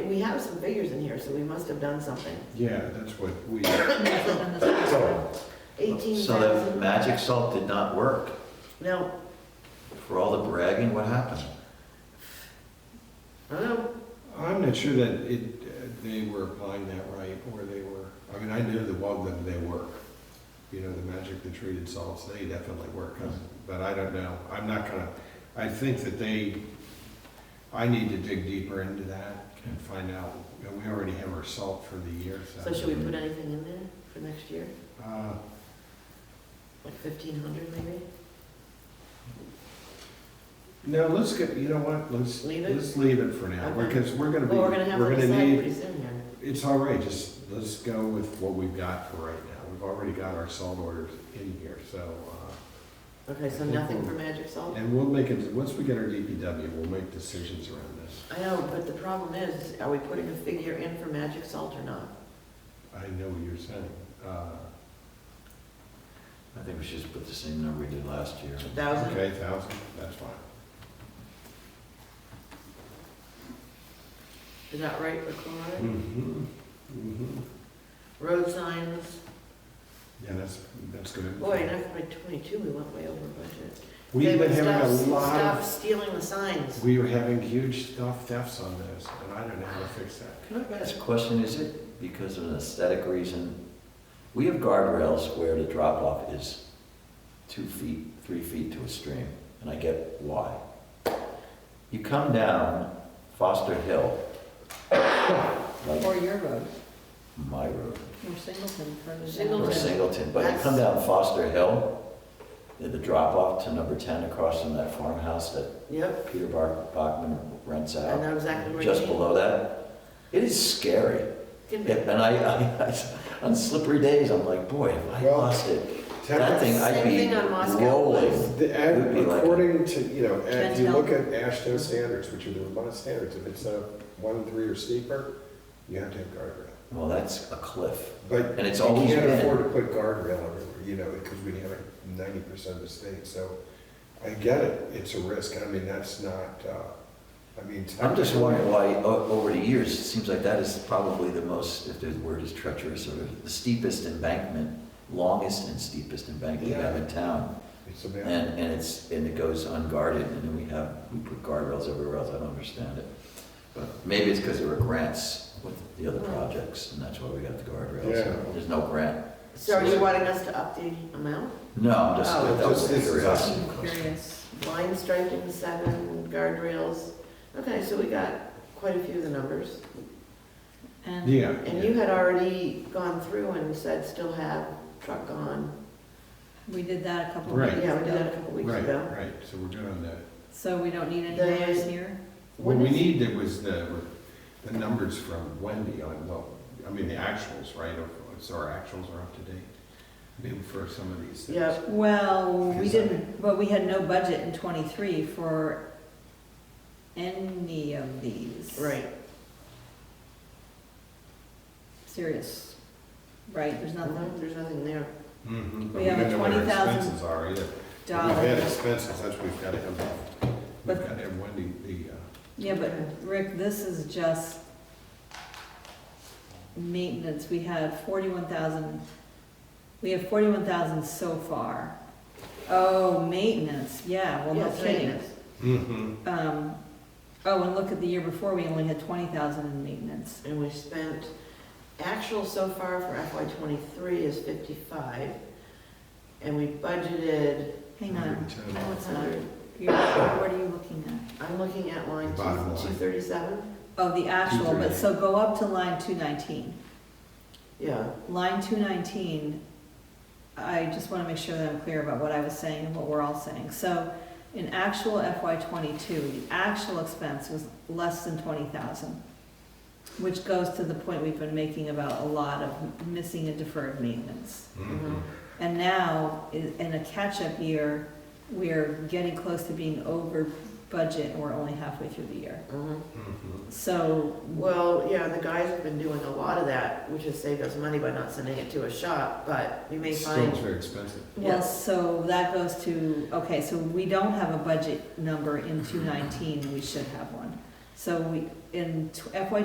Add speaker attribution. Speaker 1: we have some figures in here, so we must have done something.
Speaker 2: Yeah, that's what we,
Speaker 1: Eighteen
Speaker 3: So that
Speaker 1: thousand,
Speaker 3: magic salt did not work.
Speaker 1: no,
Speaker 3: For all the bragging, what happened?
Speaker 1: I don't know,
Speaker 2: I'm not sure that it, uh, they were applying that right, or they were, I mean, I knew the Wogden, they work. You know, the magic, the treated salts, they definitely work, but I don't know, I'm not gonna, I think that they, I need to dig deeper into that and find out, You know, we already have our salt for the year, so.
Speaker 1: so should we put anything in there for next year,
Speaker 2: Uh,
Speaker 1: like fifteen hundred maybe?
Speaker 2: No, let's get, you know what, let's,
Speaker 1: Leave it?
Speaker 2: let's leave it for now,
Speaker 1: Okay.
Speaker 2: because we're gonna be,
Speaker 1: Well, we're gonna have to
Speaker 2: we're gonna
Speaker 1: decide
Speaker 2: need,
Speaker 1: pretty soon here.
Speaker 2: it's all right, just, let's go with what we've got for right now. We've already got our salt orders in here, so, uh,
Speaker 1: Okay, so nothing for magic salt?
Speaker 2: and we'll make it, once we get our DPW, we'll make decisions around this.
Speaker 1: I know, but the problem is, are we putting a figure in for magic salt or not?
Speaker 2: I know what you're saying. Uh,
Speaker 3: I think we should just put the same number we did last year.
Speaker 1: A thousand?
Speaker 2: Okay, thousand, that's fine.
Speaker 1: Is that right for chlorine?
Speaker 2: Mhm, mhm.
Speaker 1: Road signs,
Speaker 2: Yeah, that's, that's good.
Speaker 1: boy, in FY twenty-two, we went way over budget. They
Speaker 2: We've been
Speaker 1: would
Speaker 2: having a
Speaker 1: stop-
Speaker 2: lot
Speaker 1: Stop
Speaker 2: of
Speaker 1: stealing the signs.
Speaker 2: We were having huge stuff thefts on those, and I don't know how to fix that.
Speaker 3: Can I ask a question? Is it because of an aesthetic reason? We have guardrails where the drop off is two feet, three feet to a stream, and I get why. You come down Foster Hill, like
Speaker 4: Or your road,
Speaker 3: my road,
Speaker 4: or Singleton, further down.
Speaker 3: or
Speaker 1: Singleton.
Speaker 3: Singleton, but you come down Foster Hill, the drop off to number ten across from that farmhouse that
Speaker 1: Yep,
Speaker 3: Peter Bar- Bachman rents
Speaker 1: I
Speaker 3: out,
Speaker 1: know exactly where you
Speaker 3: just
Speaker 1: mean.
Speaker 3: below that. It is scary.
Speaker 1: Can be.
Speaker 3: Yeah, And I, I- I- on slippery days, I'm like, boy, if I
Speaker 2: Well,
Speaker 3: lost it, that thing, I'd
Speaker 1: Same
Speaker 3: be
Speaker 1: thing on Moscow Place.
Speaker 3: rolling.
Speaker 2: The,
Speaker 3: Would be
Speaker 2: and
Speaker 3: like-
Speaker 2: according to, you know,
Speaker 4: Can't
Speaker 2: if you
Speaker 4: tell.
Speaker 2: look at Ashton standards, which are the Vermont standards, if it's a one, three or steeper, you have to have guardrail.
Speaker 3: Well, that's a cliff.
Speaker 2: But
Speaker 3: And it's
Speaker 2: you
Speaker 3: always
Speaker 2: can't
Speaker 3: been-
Speaker 2: afford to put guardrail everywhere, you know, because we have ninety percent of the state, so I get it, it's a risk, I mean, that's not, uh, I mean.
Speaker 3: I'm just wondering why, o- over the years, it seems like that is probably the most, if the word is treacherous, or the steepest embankment, longest and steepest embankment we have in town.
Speaker 2: It's about.
Speaker 3: And, and it's, and it goes unguarded, and then we have, we put guardrails everywhere else, I don't understand it. But maybe it's because there were grants with the other projects, and that's why we got the
Speaker 2: Yeah.
Speaker 3: guardrails. There's no grant.
Speaker 1: So are you wanting us to up the amount?
Speaker 3: No, I'm just,
Speaker 1: Oh.
Speaker 3: that was
Speaker 2: Just- this is
Speaker 3: curious.
Speaker 2: us.
Speaker 4: I'm curious.
Speaker 1: Line striping, seven, guardrails. Okay, so we got quite a few of the numbers.
Speaker 4: And
Speaker 2: Yeah.
Speaker 1: And you had already gone through and said still have truck on.
Speaker 4: we did that a couple of
Speaker 2: Right.
Speaker 4: weeks ago.
Speaker 1: Yeah, we did that a couple weeks
Speaker 2: Right,
Speaker 1: ago.
Speaker 2: right, so we're good on that.
Speaker 4: So we don't need any
Speaker 1: The-
Speaker 4: mayors here?
Speaker 2: What
Speaker 1: What
Speaker 2: we
Speaker 1: is-
Speaker 2: needed was the, the numbers from Wendy on, well, I mean, the actuals, right? Of- So our actuals are up to date, maybe for some of these things.
Speaker 1: Yep,
Speaker 4: Well, we
Speaker 2: Yes, I-
Speaker 4: didn't, but we had no budget in twenty-three for any of these.
Speaker 1: right.
Speaker 4: Serious, right, there's nothing,
Speaker 1: Mhm, There's nothing there.
Speaker 2: Mhm, but
Speaker 4: We have a
Speaker 2: don't know what our
Speaker 4: 20,000
Speaker 2: Expenses are either. But We've had
Speaker 4: dollars.
Speaker 2: expenses, that's what we've got to have, we've
Speaker 4: But-
Speaker 2: got to have Wendy, the, uh,
Speaker 4: Yeah, but Rick, this is just maintenance, we had forty-one thousand, we have forty-one thousand so far. Oh, maintenance, yeah, well, no
Speaker 1: Yes,
Speaker 4: kidding.
Speaker 1: maintenance.
Speaker 2: uh,
Speaker 4: Um, oh, and look at the year before, we only had twenty thousand in maintenance.
Speaker 1: And we spent, actual so far for FY twenty-three is fifty-five. And we budgeted
Speaker 4: Hang on,
Speaker 2: 110.
Speaker 4: no, it's not.
Speaker 1: hundred.
Speaker 4: You're, what are you looking at?
Speaker 1: I'm looking at line
Speaker 2: Bottom line.
Speaker 1: two thirty-seven.
Speaker 4: Oh, the actual, but so go up to line two nineteen.
Speaker 1: Yeah,
Speaker 4: Line two nineteen, I just wanna make sure that I'm clear about what I was saying and what we're all saying. So, in actual FY twenty-two, the actual expense was less than twenty thousand, which goes to the point we've been making about a lot of missing and deferred maintenance.
Speaker 2: Mhm.
Speaker 4: And now, i- in a catch-up year, we're getting close to being over budget, and we're only halfway through the year.
Speaker 1: mhm.
Speaker 2: Mhm.
Speaker 4: So,
Speaker 1: Well, yeah, the guys have been doing a lot of that, which has saved us money by not sending it to a shop, but we may
Speaker 2: Still, it's
Speaker 1: find,
Speaker 2: very expensive.
Speaker 4: well, so that goes to, okay, so we don't have a budget number in 219, we should have one. So we, in tw- FY